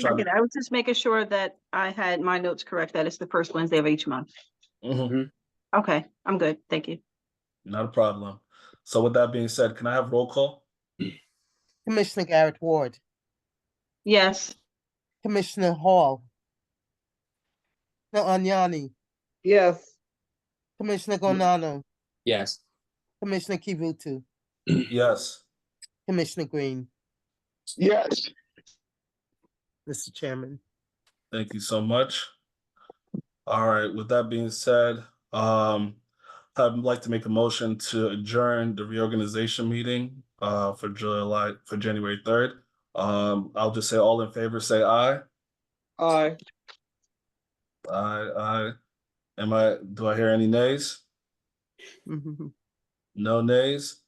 trying to- I was just making sure that I had my notes correct, that it's the first Wednesday of each month. Mhm, Okay, I'm good, thank you. Not a problem. So with that being said, can I have roll call? Commissioner Garrett Ward, Yes, Commissioner Hall, Commissioner Agnani, yes, Commissioner Gonano, Yes. Commissioner Kivutu, Yes. Commissioner Green, yes, Mr. Chairman. Thank you so much. All right, with that being said, um, I'd like to make a motion to adjourn the reorganization meeting uh for July, for January third. Um, I'll just say all in favor, say aye. aye, Aye, aye. Am I, do I hear any nays? No nays?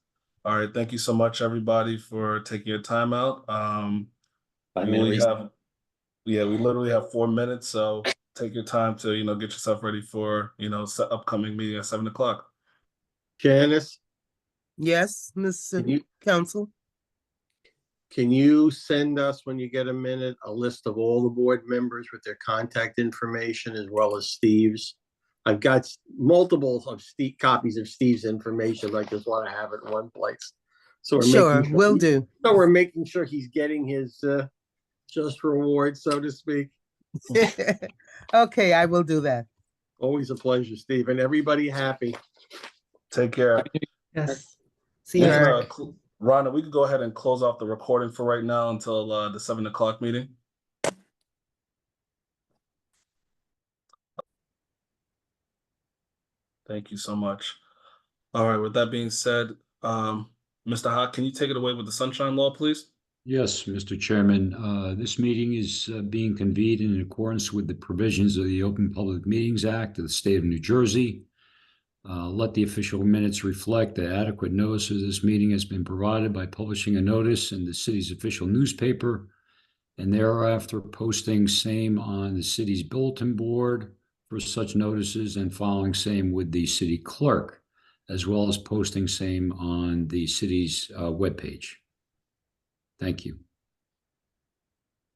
All right, thank you so much, everybody, for taking your time out. Um, Five We only minutes. have, yeah, we literally have four minutes, so take your time to, you know, get yourself ready for, you know, se- upcoming meeting at seven o'clock. Janice, Yes, can Mr. you, Council? can you send us, when you get a minute, a list of all the board members with their contact information as well as Steve's? I've got s- multiples of Steve, copies of Steve's information. I just want to have it in one place. So we're Sure, making will do. So we're making sure he's getting his, uh, just reward, so to speak. Okay, I will do that. Always a pleasure, Steve, and everybody happy. Take care. Yes. See you, We can, Eric. uh, cl- Rhonda, we could go ahead and close off the recording for right now until, uh, the seven o'clock meeting. Thank you so much. All right, with that being said, um, Mr. Hawk, can you take it away with the sunshine law, please? Yes, Mr. Chairman, uh, this meeting is uh, being convened in accordance with the provisions of the Open Public Meetings Act of the State of New Jersey. Uh, Let the official minutes reflect that adequate notice of this meeting has been provided by publishing a notice in the city's official newspaper and thereafter posting same on the city's bulletin board for such notices and following same with the city clerk, as well as posting same on the city's uh, webpage. Thank you.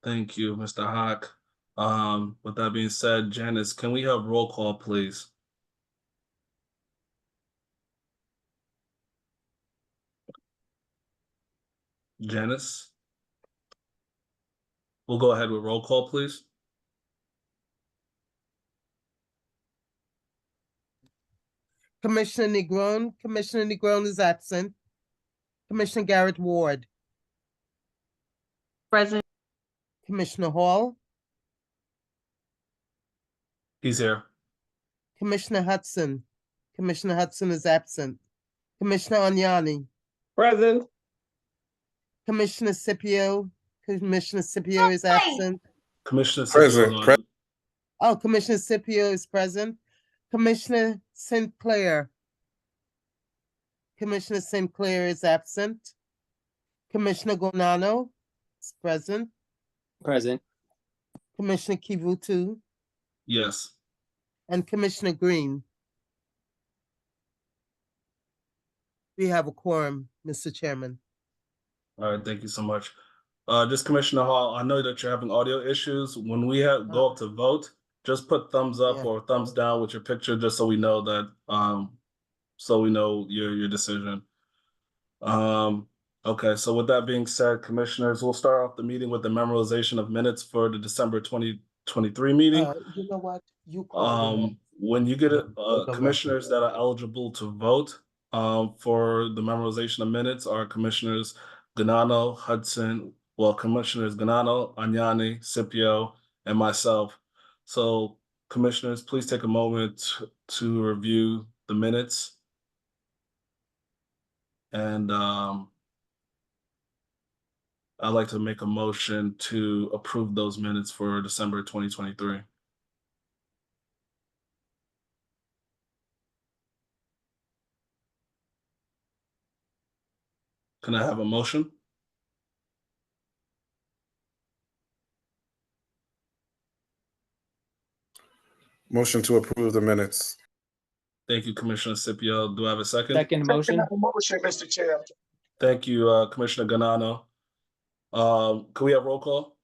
Thank you, Mr. Hawk. Um, with that being said, Janice, can we have roll call, please? Janice? We'll go ahead with roll call, please. Commissioner Negron, Commissioner Negron is absent. Commissioner Garrett Ward, present, Commissioner Hall, He's here. Commissioner Hudson. Commissioner Hudson is absent. Commissioner Agnani, present, Commissioner Scipio, Commissioner Scipio is absent. Commissioner. Present, Siscoto. present. Oh, Commissioner Scipio is present. Commissioner Sinclair. Commissioner Sinclair is absent. Commissioner Gonano is present. Present. Commissioner Kivutu Yes, and Commissioner Green. We have a quorum, Mr. Chairman. all right, thank you so much. Uh, just Commissioner Hall, I know that you're having audio issues. When we have, go up to vote, just put thumbs up Yeah. or thumbs down with your picture, just so we know that, um, so we know your, your decision. Um, okay, so with that being said, Commissioners, we'll start off the meeting with the memorization of minutes for the December twenty twenty-three meeting. Uh, You know what? You call the roll. Um, when you get, Vote uh, the commissioners that are eligible to vote, um, for the memorization of minutes are commissioners Ganano, Hudson, well, commissioners Ganano, Agnani, Scipio, and myself. So commissioners, please take a moment to review the minutes. And, um, I'd like to make a motion to approve those minutes for December twenty twenty-three. Can I have a motion? Motion to approve the minutes. Thank you, Commissioner Scipio. Do I have a second? Second second motion? motion, Mr. Chair, Thank you, uh, Commissioner Ganano. Um, can we have roll call?